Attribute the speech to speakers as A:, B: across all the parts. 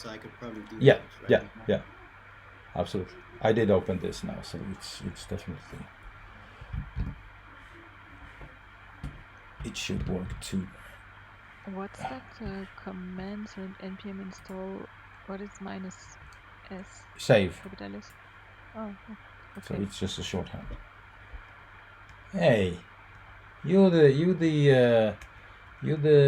A: so I could probably do
B: Yeah,
A: that right
B: yeah,
A: now.
B: yeah. Absolutely. I did open this now, so it's it's definitely it should work too.
C: What's that uh, command so in npm install? What is minus s
B: Save.
C: capitalis? Oh, oh,
B: So
C: okay.
B: it's just a shorthand. Hey, you the you the uh, you the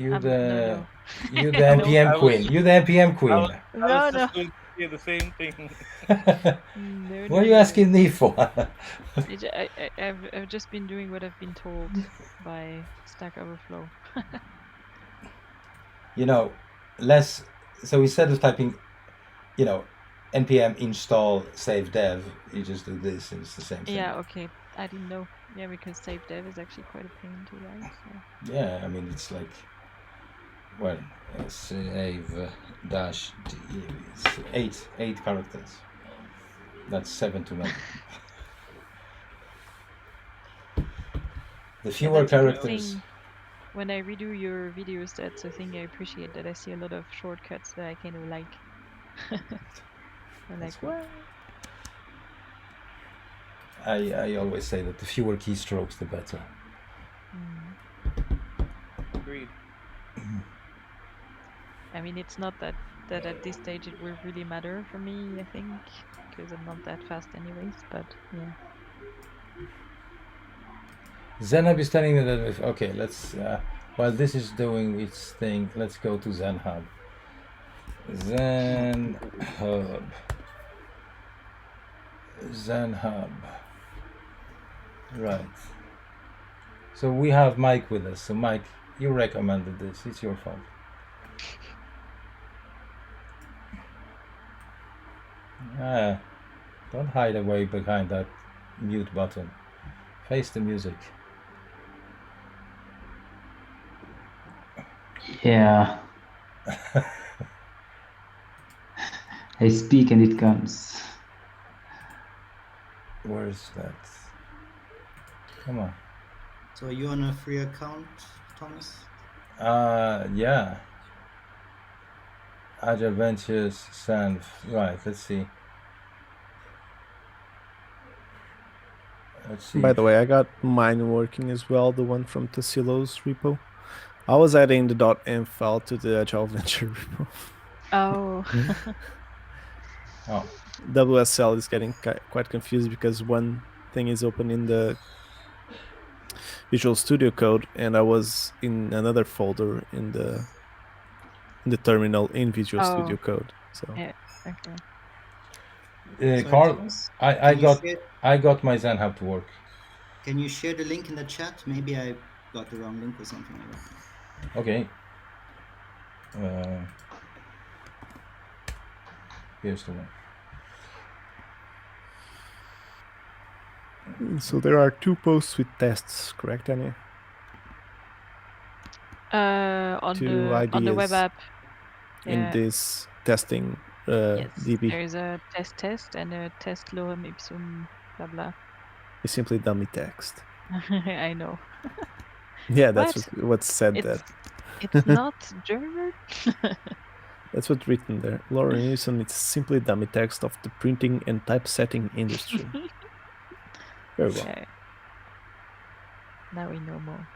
B: you
C: Um,
B: the
C: no,
B: you the
C: No,
B: NPM
D: I was-
B: queen. You the NPM
D: I
B: queen.
D: was- I
C: no,
D: was
C: no,
D: just going to say the same thing.
C: no.
B: what
C: no,
B: are you
C: no.
B: asking me for?
C: I ju- I, I, have I've just been doing what I've been told by Stack Overflow.
B: you know, less. So instead of typing, you know, npm install save dev, you just do this, and it's the same thing.
C: Yeah, okay. I didn't know. Yeah, because save dev is actually quite a pain to write. So.
B: Yeah, I mean it's like, well, uh, save uh, dash d is eight eight characters. That's seven too many. the fewer
C: that's a good
B: characters.
C: thing. When I redo your videos, that's a thing I appreciate. That I see a lot of shortcuts that I kind of like. I'm
B: That's
C: like,
B: good.
C: what?
B: I I always say that the fewer keystrokes, the better.
C: Mm.
D: Agreed.
C: I mean, it's not that that at this stage it will really matter for me. I think because I'm not that fast, anyways. But yeah.
B: Zenhub is telling me that if, okay, let's uh, while this is doing its thing, let's go to Zenhub. Zenhub. Zenhub. Right. So we have Mike with us. So Mike, you recommended this. It's your fault. Ah, don't hide away behind that mute button. Face the music.
E: Yeah. I speak and it comes.
B: Where is that? Come on.
A: So are you on a free account, Thomas?
B: Uh, yeah. Adventures Sand. Right, let's see. Let's see.
F: By the way, I got mine working as well, the one from Tassilo's repo. I was adding the .env file to the Agile Venture repo.
C: Oh.
B: Oh,
F: WSL is getting ki- quite confused because one thing is open in the Visual Studio Code, and I was in another folder in the in the terminal in Visual
C: Oh.
F: Studio Code. So
C: Yeah. okay.
B: uh,
A: Sorry,
B: Carl,
A: Thomas?
B: I, I
A: Can you
B: got
A: share-
B: I got my Zenhub to work.
A: Can you share the link in the chat? Maybe I got the wrong link or something like that.
B: Okay. Uh, here's the one.
F: Mm, so there are two posts with tests, correct, Annie?
C: Uh, on
F: Two
C: the on the web
F: ideas
C: app.
F: In this testing uh,
C: yes,
F: DB,
C: there is a test test and a test lorem ipsum blah blah.
F: it's simply dummy text.
C: I know.
F: Yeah, that's
C: What?
F: what, what said
C: It's
F: that.
C: it's not German.
F: That's what's written there. Lauren Newson is simply dummy text of the printing and typesetting industry. Very well.
C: Okay. Now we know more.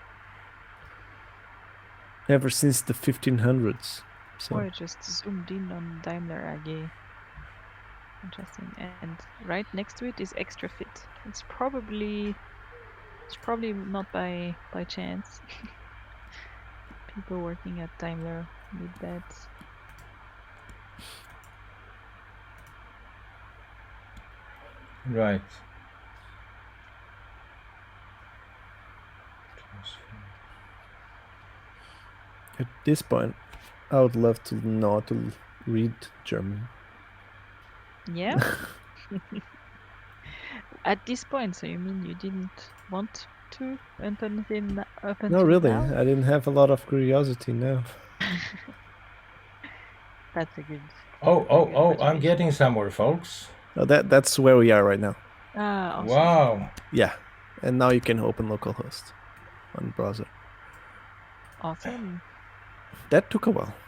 F: Ever since the 1500s. So
C: Or just zoomed in on Daimler AG. Interesting. And right next to it is extra fit. It's probably it's probably not by by chance. People working at Daimler need that.
B: Right.
F: at this point, I would love to know how to read German.
C: Yeah. At this point, so you mean you didn't want to up until n- up
F: No,
C: until
F: really.
C: now?
F: I didn't have a lot of curiosity now.
C: That's a good.
B: Oh, oh,
C: Okay,
B: oh,
C: but
B: I'm
C: we-
B: getting somewhere, folks.
F: No, Uh, that, that's where we are right now.
C: Ah, awesome.
B: Wow.
F: Yeah. And now you can open localhost on browser.
C: Awesome.
F: That took a while.